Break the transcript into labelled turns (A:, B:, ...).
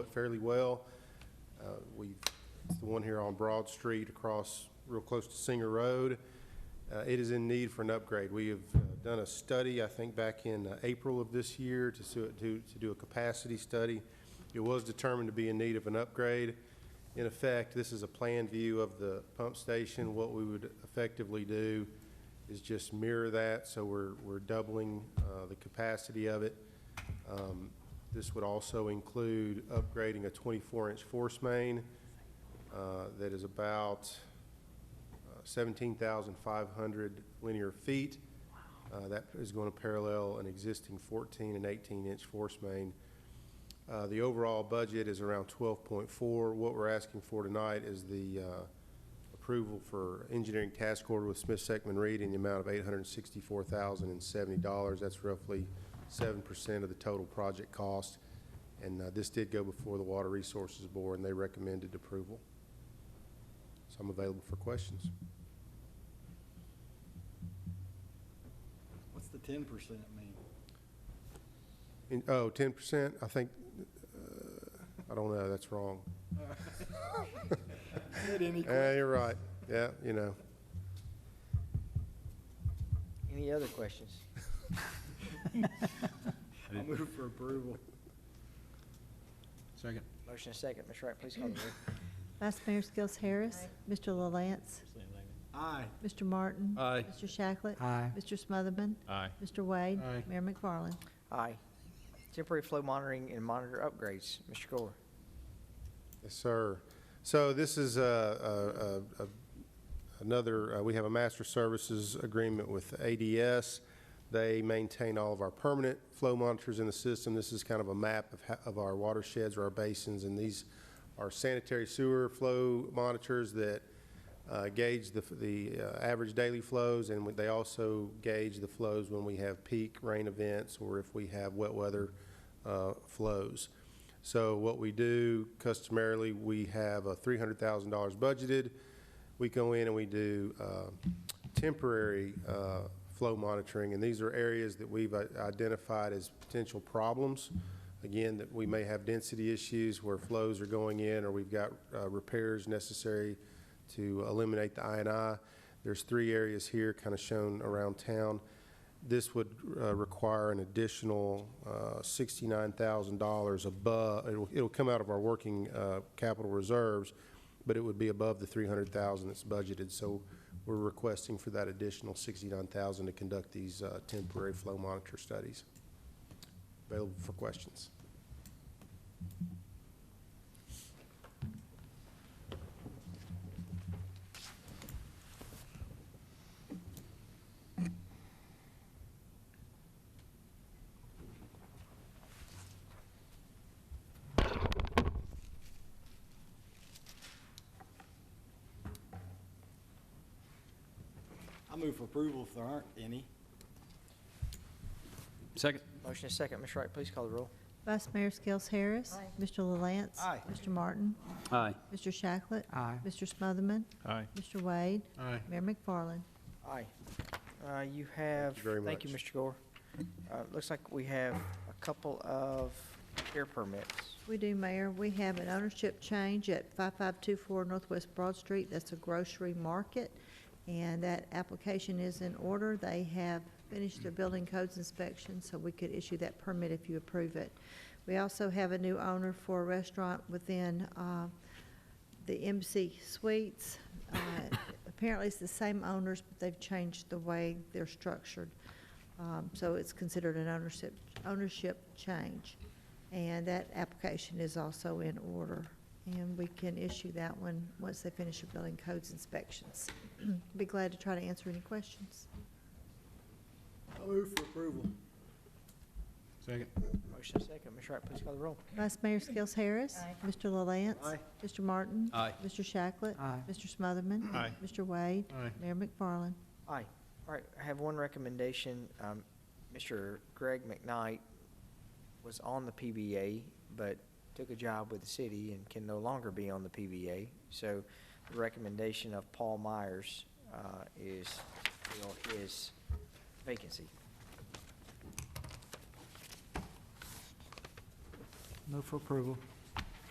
A: it fairly well. Uh, We've, it's the one here on Broad Street across, real close to Singer Road. Uh, It is in need for an upgrade. We have uh, done a study, I think, back in uh, April of this year to su- to, to do a capacity study. It was determined to be in need of an upgrade. In effect, this is a plan view of the pump station. What we would effectively do is just mirror that, so we're, we're doubling uh, the capacity of it. Um, This would also include upgrading a 24-inch force main uh, that is about uh, 17,500 linear feet. Uh, That is going to parallel an existing 14 and 18-inch force main. Uh, The overall budget is around 12.4. What we're asking for tonight is the uh, approval for engineering task order with Smith Seckman Reed in the amount of $864,070. That's roughly 7% of the total project cost. And uh, this did go before the Water Resources Board, and they recommended approval. So I'm available for questions.
B: What's the ten percent mean?
A: And- Oh, 10%, I think, uh, I don't know, that's wrong.
B: Said any
A: Yeah,
B: question?
A: you're right. Yeah, you know.
C: Any other questions?
B: I move for approval.
D: Second.
C: Motion is second. Ms. Wright, please call the roll.
E: Vice Mayor Skels Harris. Mr. LaLance.
B: Aye.
E: Mr. Martin.
D: Aye.
E: Mr. Shacklet.
D: Aye.
E: Mr. Smotherman.
D: Aye.
E: Mr. Wade.
D: Aye.
E: Mayor McFarland.
C: Aye. Temporary flow monitoring and monitor upgrades. Mr. Gore.
A: Yes, sir. So this is uh, a- a- a- another, uh, we have a master services agreement with ADS. They maintain all of our permanent flow monitors in the system. This is kind of a map of ho- of our watersheds or our basins, and these are sanitary sewer flow monitors that uh, gauge the f- the uh, average daily flows, and they also gauge the flows when we have peak rain events or if we have wet weather uh, flows. So what we do customarily, we have a $300,000 budgeted. We go in and we do uh, temporary uh, flow monitoring, and these are areas that we've i- identified as potential problems. Again, that we may have density issues where flows are going in, or we've got uh, repairs necessary to eliminate the INI. There's three areas here kind of shown around town. This would uh, require an additional uh, $69,000 above, it'll, it'll come out of our working uh, capital reserves, but it would be above the 300,000 that's budgeted. So we're requesting for that additional 69,000 to conduct these uh, temporary flow monitor studies. Available for questions.
B: I move for approval if there aren't any.
D: Second.
C: Motion is second. Ms. Wright, please call the roll.
E: Vice Mayor Skels Harris. Mr. LaLance.
B: Aye.
E: Mr. Martin.
D: Aye.
E: Mr. Shacklet.
D: Aye.
E: Mr. Smotherman.
D: Aye.
E: Mr. Wade.
D: Aye.
E: Mayor McFarland.
C: Aye. Uh, you have.
A: you very
C: Thank you,
A: much.
C: Mr. Gore. Uh, looks like we have a couple of air permits.
E: We do, Mayor. We have an ownership change at 5524 Northwest Broad Street. That's a grocery market, and that application is in order. They have finished their building codes inspection, so we could issue that permit if you approve it. We also have a new owner for a restaurant within uh, the MC Suites. Uh, Apparently, it's the same owners, but they've changed the way they're structured. Um, So it's considered an ownership, ownership change. And that application is also in order. And we can issue that one once they finish the building codes inspections. Be glad to try to answer any questions.
B: I move for approval.
D: Second.
C: Motion is second. Ms. Wright, please call the roll.
E: Vice Mayor Skels Harris. Mr. LaLance.
B: Aye.
E: Mr. Martin.
D: Aye.
E: Mr. Shacklet.
D: Aye.
E: Mr. Smotherman.
D: Aye.
E: Mr. Wade.
D: Aye.
E: Mayor McFarland.
C: Aye. All right, I have one recommendation. Um, Mr. Greg McKnight was on the PBA, but took a job with the city and can no longer be on the PBA. So the recommendation of Paul Myers, uh, is to fill his vacancy.
D: Move for approval.